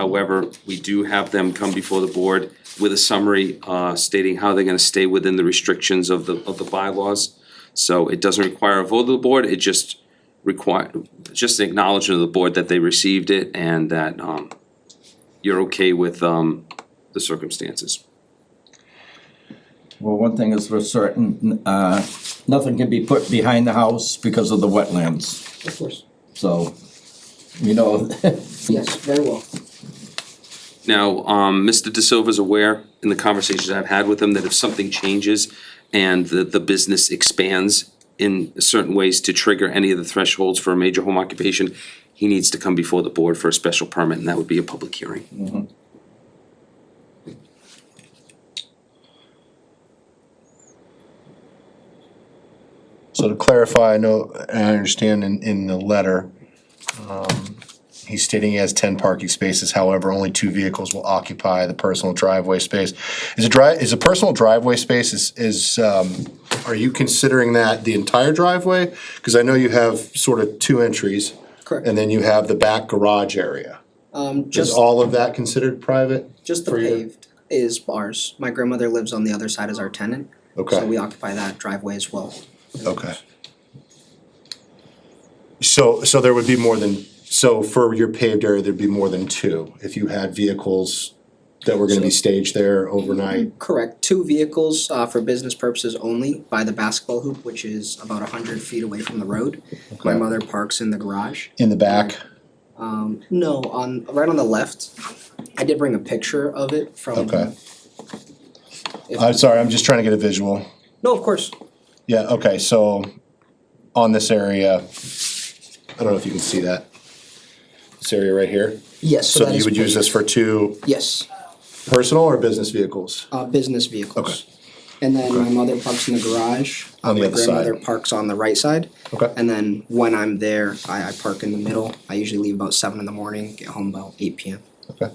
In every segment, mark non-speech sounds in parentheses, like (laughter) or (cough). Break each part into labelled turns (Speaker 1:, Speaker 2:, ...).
Speaker 1: However, we do have them come before the board with a summary uh, stating how they're gonna stay within the restrictions of the, of the bylaws. So it doesn't require a vote of the board, it just require, just an acknowledgement of the board that they received it and that um, you're okay with um, the circumstances.
Speaker 2: Well, one thing is for certain, uh, nothing can be put behind the house because of the wetlands,
Speaker 3: Of course,
Speaker 2: so, you know, (laughs)
Speaker 3: yes, very well.
Speaker 1: Now, um, Mr. De Silva's aware in the conversations I've had with him that if something changes and the, the business expands in certain ways to trigger any of the thresholds for a major home occupation, he needs to come before the board for a special permit, and that would be a public hearing.
Speaker 4: So to clarify, I know, and I understand in, in the letter, um, he's stating he has ten parking spaces, however, only two vehicles will occupy the personal driveway space. Is a dri, is a personal driveway space is, is, um, are you considering that the entire driveway? Cause I know you have sort of two entries.
Speaker 3: Correct.
Speaker 4: And then you have the back garage area.
Speaker 3: Um,
Speaker 4: Is
Speaker 3: just,
Speaker 4: all of that considered private?
Speaker 3: just the
Speaker 4: for your-
Speaker 3: paved is ours. My grandmother lives on the other side as our tenant. So we
Speaker 4: Okay,
Speaker 3: occupy that driveway as well.
Speaker 4: okay. So, so there would be more than, so for your paved area, there'd be more than two, if you had vehicles that were gonna be staged there overnight?
Speaker 3: Correct, two vehicles, uh, for business purposes only by the basketball hoop, which is about a hundred feet away from the road. My
Speaker 4: Okay.
Speaker 3: mother parks in the garage.
Speaker 4: In the back?
Speaker 3: Um, no, on, right on the left. I did bring a picture of it from.
Speaker 4: Okay. I'm sorry, I'm just trying to get a visual.
Speaker 3: No, of course,
Speaker 4: Yeah, okay, so on this area, I don't know if you can see that. This area right here,
Speaker 3: yes, so
Speaker 4: so
Speaker 3: that
Speaker 4: you
Speaker 3: is.
Speaker 4: would use this for two
Speaker 3: Yes,
Speaker 4: personal or business vehicles?
Speaker 3: uh, business vehicles. And then my mother parks in the garage.
Speaker 4: On the
Speaker 3: My
Speaker 4: other side.
Speaker 3: grandmother parks on the right side.
Speaker 4: Okay.
Speaker 3: And then when I'm there, I, I park in the middle. I usually leave about seven in the morning, get home about eight PM,
Speaker 4: Okay.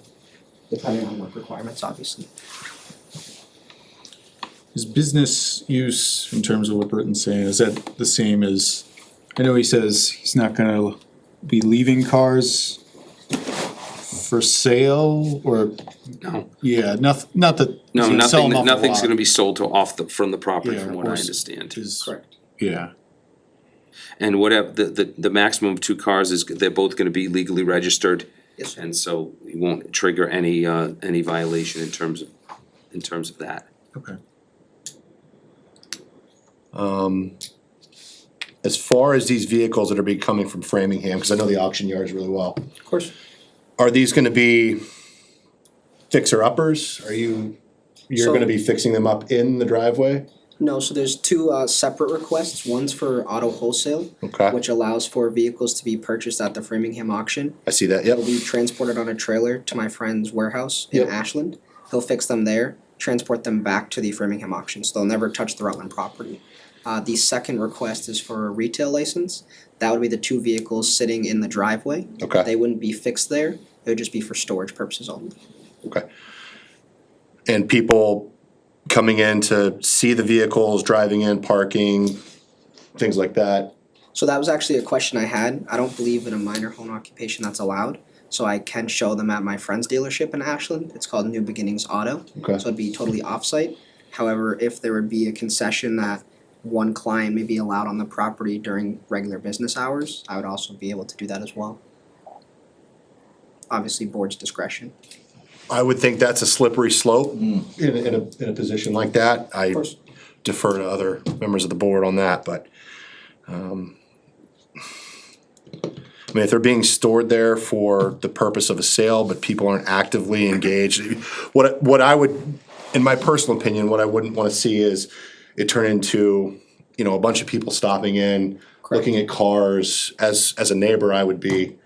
Speaker 3: depending on work requirements, obviously.
Speaker 5: Is business use, in terms of what Burton's saying, is that the same as, I know he says he's not gonna be leaving cars for sale or,
Speaker 1: No,
Speaker 5: yeah, not, not that.
Speaker 1: no,
Speaker 5: he's gonna sell
Speaker 1: nothing,
Speaker 5: them off the
Speaker 1: nothing's
Speaker 5: lot.
Speaker 1: gonna be sold to off the, from the property,
Speaker 5: Yeah,
Speaker 1: from
Speaker 5: of
Speaker 1: what I
Speaker 5: course.
Speaker 1: understand.
Speaker 5: Is-
Speaker 3: Correct.
Speaker 5: Yeah,
Speaker 1: And whatever, the, the, the maximum of two cars is, they're both gonna be legally registered.
Speaker 3: Yes, sir.
Speaker 1: And so it won't trigger any, uh, any violation in terms of, in terms of that.
Speaker 5: okay.
Speaker 4: Um, as far as these vehicles that are be coming from Framingham, because I know the auction yards really well,
Speaker 3: of course.
Speaker 4: are these gonna be fixer uppers? Are you, you're
Speaker 3: So-
Speaker 4: gonna be fixing them up in the driveway?
Speaker 3: No, so there's two uh, separate requests. One's for auto wholesale,
Speaker 4: Okay,
Speaker 3: which allows for vehicles to be purchased at the Framingham auction.
Speaker 4: I see that, yep,
Speaker 3: They'll be transported on a trailer to my friend's warehouse in
Speaker 4: Yep.
Speaker 3: Ashland. He'll fix them there, transport them back to the Framingham auction, so they'll never touch the Rutland property. Uh, the second request is for a retail license. That would be the two vehicles sitting in the driveway.
Speaker 4: okay,
Speaker 3: They wouldn't be fixed there. It would just be for storage purposes only.
Speaker 4: okay. And people coming in to see the vehicles, driving in, parking, things like that?
Speaker 3: So that was actually a question I had. I don't believe in a minor home occupation that's allowed. So I can show them at my friend's dealership in Ashland. It's called New Beginnings Auto.
Speaker 4: Okay,
Speaker 3: So it'd be totally offsite. However, if there would be a concession that one client may be allowed on the property during regular business hours, I would also be able to do that as well. Obviously, board's discretion.
Speaker 4: I would think that's a slippery slope in,
Speaker 2: Mm.
Speaker 4: a- in a, in a position like that. I
Speaker 3: course.
Speaker 4: defer to other members of the board on that, but, um, I mean, if they're being stored there for the purpose of a sale, but people aren't actively engaged, what, what I would, in my personal opinion, what I wouldn't wanna see is it turn into, you know, a bunch of people stopping in, looking at cars. As, as a neighbor, I would be,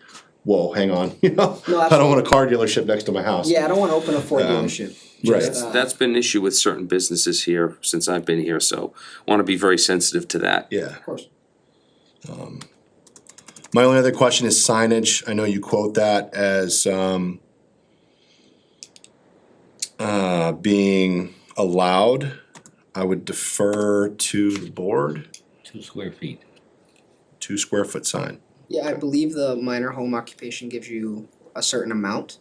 Speaker 4: whoa, hang on, (laughs) you know?
Speaker 3: No,
Speaker 4: I don't want a car dealership next to my house.
Speaker 3: Yeah, I don't wanna open a Ford dealership.
Speaker 4: Um, right.
Speaker 3: Just, uh,
Speaker 1: That's been an issue with certain businesses here since I've been here, so wanna be very sensitive to that.
Speaker 4: Yeah.
Speaker 3: Of course.
Speaker 4: My only other question is signage. I know you quote that as um, uh, being allowed. I would defer to the board,
Speaker 6: two square feet.
Speaker 4: two square foot sign.
Speaker 3: Yeah, I believe the minor home occupation gives you a certain amount.